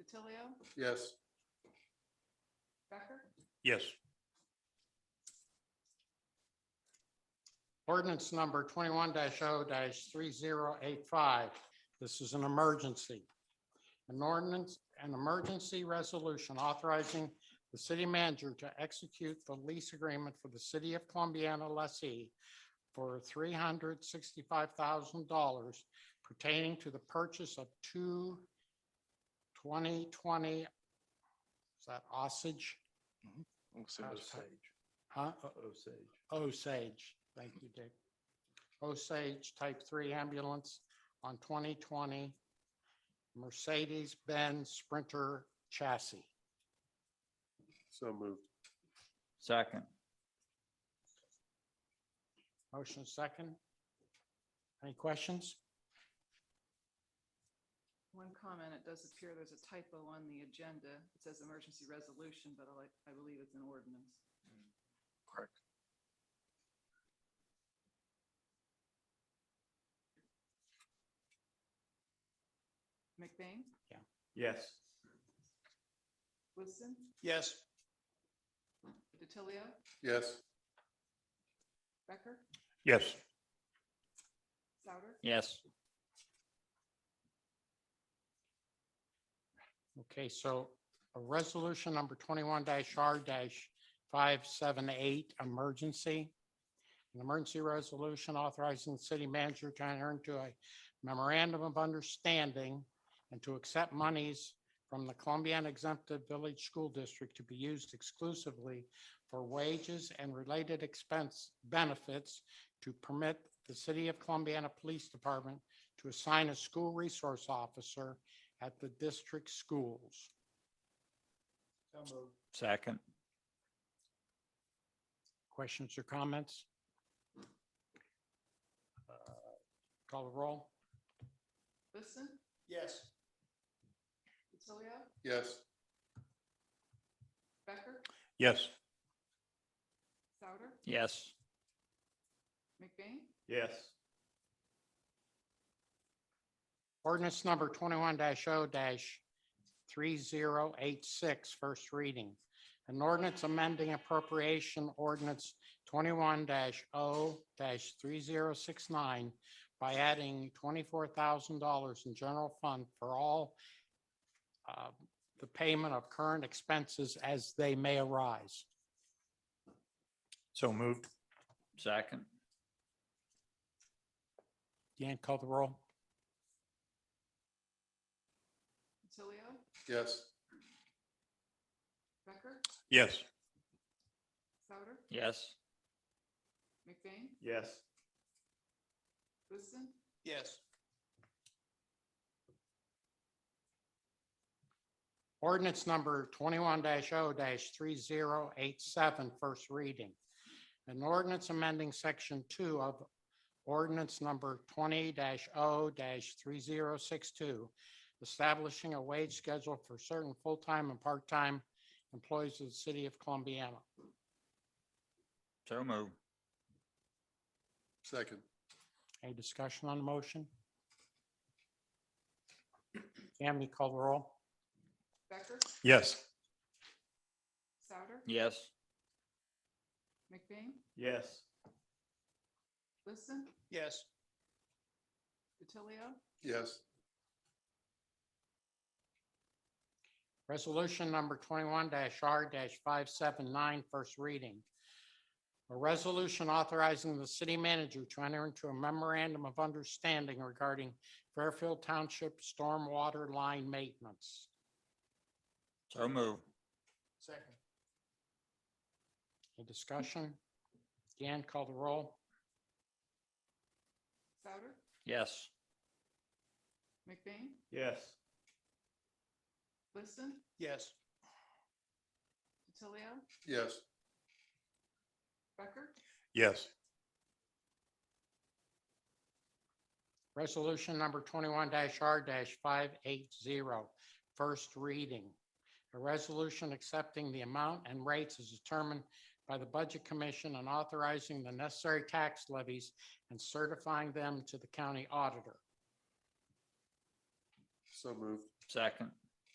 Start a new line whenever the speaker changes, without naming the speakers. DiTilio,
Yes.
Becker,
Yes.
Ordinance number twenty-one 0 three zero eight five. This is an emergency. An ordinance, an emergency resolution authorizing the city manager to execute the lease agreement for the city of Columbiana lessee for three hundred sixty-five thousand dollars pertaining to the purchase of two 2020 is that Osage? Huh? Osage, thank you, Dick. Osage Type 3 ambulance on 2020 Mercedes-Benz Sprinter chassis.
So moved.
Second.
Motion second. Any questions?
one comment, it does appear there's a typo on the agenda. It says emergency resolution, but I like, I believe it's an ordinance. Correct. McBain,
Yes.
Wilson,
Yes.
DiTilio,
Yes.
Becker,
Yes.
Souter,
Yes.
Okay, so a resolution number twenty-one R five seven eight, emergency. An emergency resolution authorizing the city manager to enter into a memorandum of understanding and to accept monies from the Columbiana exempted village school district to be used exclusively for wages and related expense benefits to permit the city of Columbiana Police Department to assign a school resource officer at the district schools.
Second.
Questions or comments? Uh, Call the roll.
Wilson,
Yes.
DiTilio,
Yes.
Becker,
Yes.
Souter,
Yes.
McBain,
Yes.
Ordinance number twenty-one 0 three zero eight six, first reading. An ordinance amending appropriation ordinance twenty-one 0 three zero six nine by adding twenty-four thousand dollars in general fund for all uh, the payment of current expenses as they may arise.
So moved.
Second.
Deanne, call the roll.
DiTilio,
Yes.
Becker,
Yes.
Souter,
Yes.
McBain,
Yes.
Wilson,
Yes. Ordinance number twenty-one 0 three zero eight seven, first reading. An ordinance amending section two of ordinance number twenty 0 three zero six two, establishing a wage schedule for certain full-time and part-time employees of the city of Columbiana.
So moved.
Second.
Any discussion on the motion? Tammy, call the roll.
Becker,
Yes.
Souter,
Yes.
McBain,
Yes.
Wilson,
Yes.
DiTilio,
Yes.
Resolution number twenty-one R 579 first reading. A resolution authorizing the city manager to enter into a memorandum of understanding regarding Fairfield Township stormwater line maintenance.
So moved.
Second. Any discussion? Dan, call the roll.
Souter,
Yes.
McBain,
Yes.
Liston,
Yes.
DiTilio,
Yes.
Becker,
Yes.
Resolution number twenty-one R 580 first reading. A resolution accepting the amount and rates as determined by the Budget Commission and authorizing the necessary tax levies and certifying them to the county auditor.
So moved.
Second.